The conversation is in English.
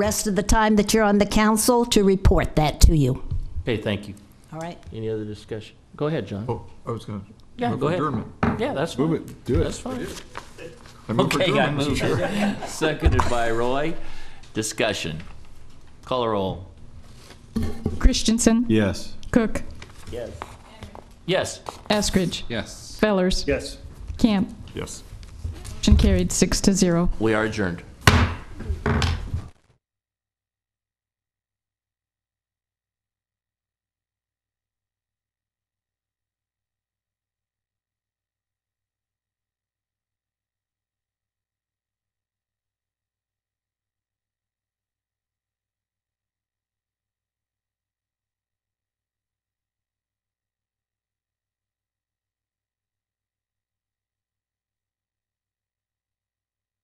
rest of the time that you're on the council to report that to you. Okay, thank you. All right? Any other discussion? Go ahead, John. Oh, I was gonna. Yeah, move go for ahead. adjournment. Yeah, that's Move fine. it, do That's it. fine. I move for Okay, I adjournment, Mr. moved. Chair. Seconded by Roy. Discussion. Call or roll? Christensen. Yes. Cook. Yes. Eskridge. Yes. Fellers. Yes. Camp. Yes. Motion carried six to zero. We are adjourned.